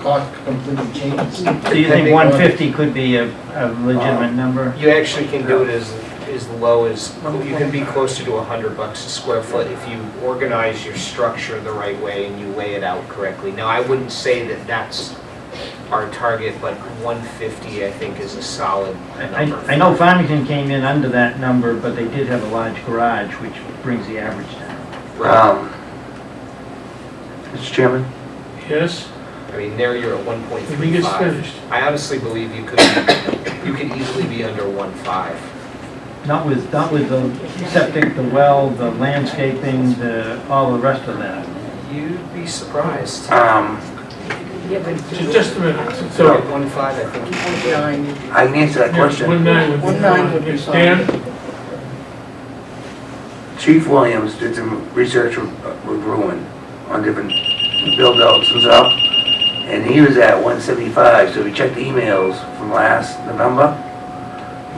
cost completely changes. Do you think 150 could be a a legitimate number? You actually can do it as, as low as, you can be closer to a hundred bucks a square foot if you organize your structure the right way and you lay it out correctly. Now, I wouldn't say that that's our target, but one fifty, I think, is a solid I number. I know Farmington came in under that number, but they did have a large garage, which brings the average down. Right. Um, Mr. Chairman? Yes, I mean, there you're at one point let me three get five. finished. I honestly believe you could, you could easily be under one five. Not with, not with the septic, the well, the landscaping, the, all the rest of that. You'd be surprised. Um, Ju- Just a minute, So so. at one five, I think you can get Nine, I can answer that One question. nine would be. One nine would be fine. Dan, Chief Williams did some research with with Ruin on different build-outs and stuff, and he was at 175, so we checked the emails from last November.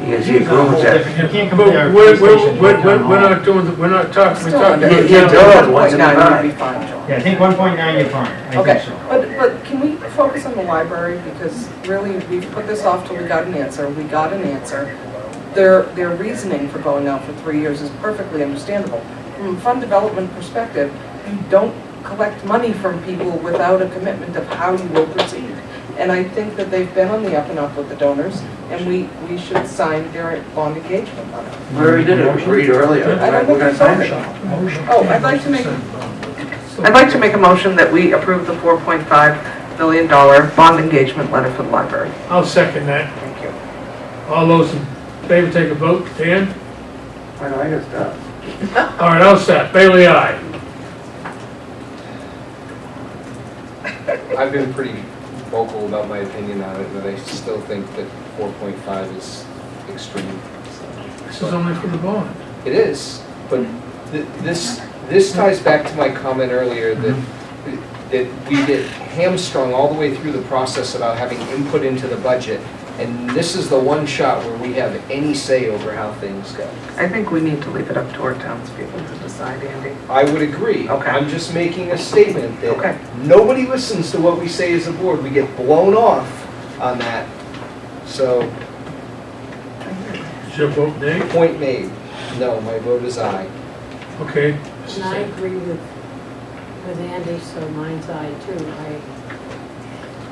You can see He's on a whole Ruin's at different- You can't but compare a we're, we're, police station we're, to a town we're- we're hall. not doing, the- we're not talking, we're still talking. under. Yeah, about yeah, general- yeah. 1.9 would be fine, John. Yeah, I think 1.9 you're fine. I think Okay, so. but, but can we focus on the library, because really, we've put this off till we got an answer, we got an answer. Their, their reasoning for going out for three years is perfectly understandable. From a fund development perspective, you don't collect money from people without a commitment of how you will proceed. And I think that they've been on the up and up with the donors, and we, we should sign their bond engagement letter. We already did it, read earlier, I don't we're gonna think sign we it. Oh, I'd like to make, I'd like to make a motion that we approve the $4.5 million bond engagement letter for the library. I'll second that. Thank you. All those in favor, take a vote. Dan? I know, I got stuff. All right, all set. Bailey, aye. I've been pretty vocal about my opinion on it, but I still think that four point five is extreme. This is only for the bond. It is, but th- this, this ties back to my comment earlier that, that we get hamstrung all the way through the process about having input into the budget, and this is the one shot where we have any say over how things go. I think we need to leave it up to our townspeople to decide, Andy. I would agree. Okay. I'm just making a statement Okay. that nobody listens to what we say as a board. We get blown off on that. So, Is your vote nay? point made. No, my vote is aye. Okay. And I agree with, with Andy, so mine's I too. I,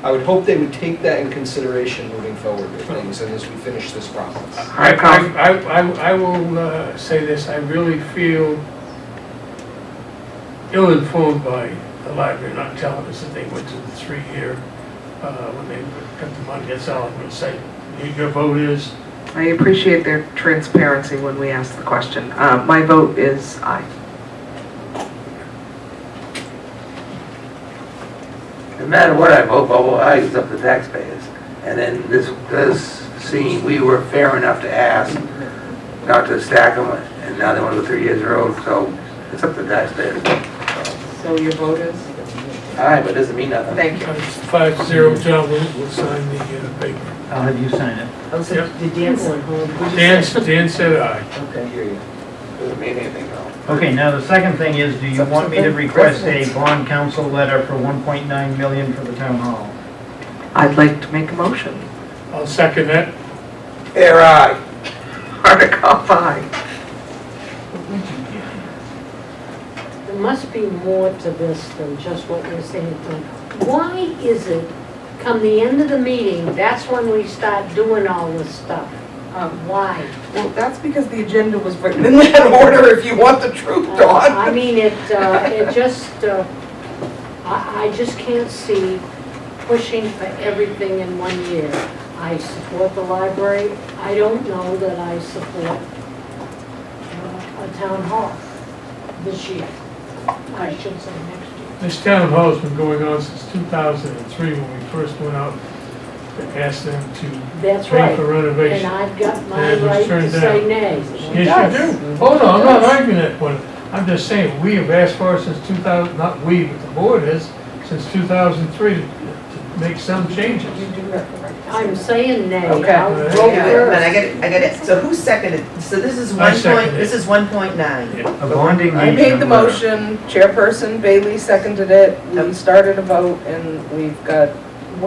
I would hope they would take that in consideration moving forward with things and as we finish this process. I, I, I- I, I will uh, say this, I really feel ill-informed by the library not telling us that they went to the three-year, uh, when they cut the money, that's all I'm gonna say. Your- Your vote is, I appreciate their transparency when we ask the question. Uh, My vote is aye. No matter what I vote, vote aye, it's up to taxpayers. And then this, this scene, we were fair enough to ask not to stack them, and now they want to go three years in a row, so it's up to taxpayers. So your vote is? Aye, but it doesn't mean nothing. Thank you. it's five-zero, John, we'll, we'll sign the uh, paper. I'll have you sign it. also, Yep. the Dan going home. Dan, Dan said I aye. hear you. Doesn't mean anything, though. Okay, now the second thing is, do you want me to request a bond council letter for 1.9 million for the town hall? I'd like to make a motion. I'll second that. Air aye. Article 5. There must be more to this than just what you're saying, Frank. Why is it, come the end of the meeting, that's when we start doing all this stuff? Uh, Why? Well, that's because the agenda was written in that order, if you want the truth, I Dawn. mean, it, uh, it just, uh, I, I just can't see pushing for everything in one year. I support the library, I don't know that I support uh, a town hall this year. I should say next year. This town hall's been going on since two thousand and three, when we first went out to ask them to That's pay for right, renovation. and I've got my Yeah, it was right to turned say down. nay. Yes, you Yes. do. Hold on, I'm not arguing that point. I'm just saying, we have asked for it since 2000, not we, but the board has, since 2003 to to make some changes. I'm saying nay. Okay. I'll Yeah, vote Oh, Wait a minute, I first. get it, I get it. So who seconded? So this is I one point, seconded it. this is one point nine. Yeah. A bond I engagement made the letter. motion, chairperson Bailey seconded it, we started a vote, and we've got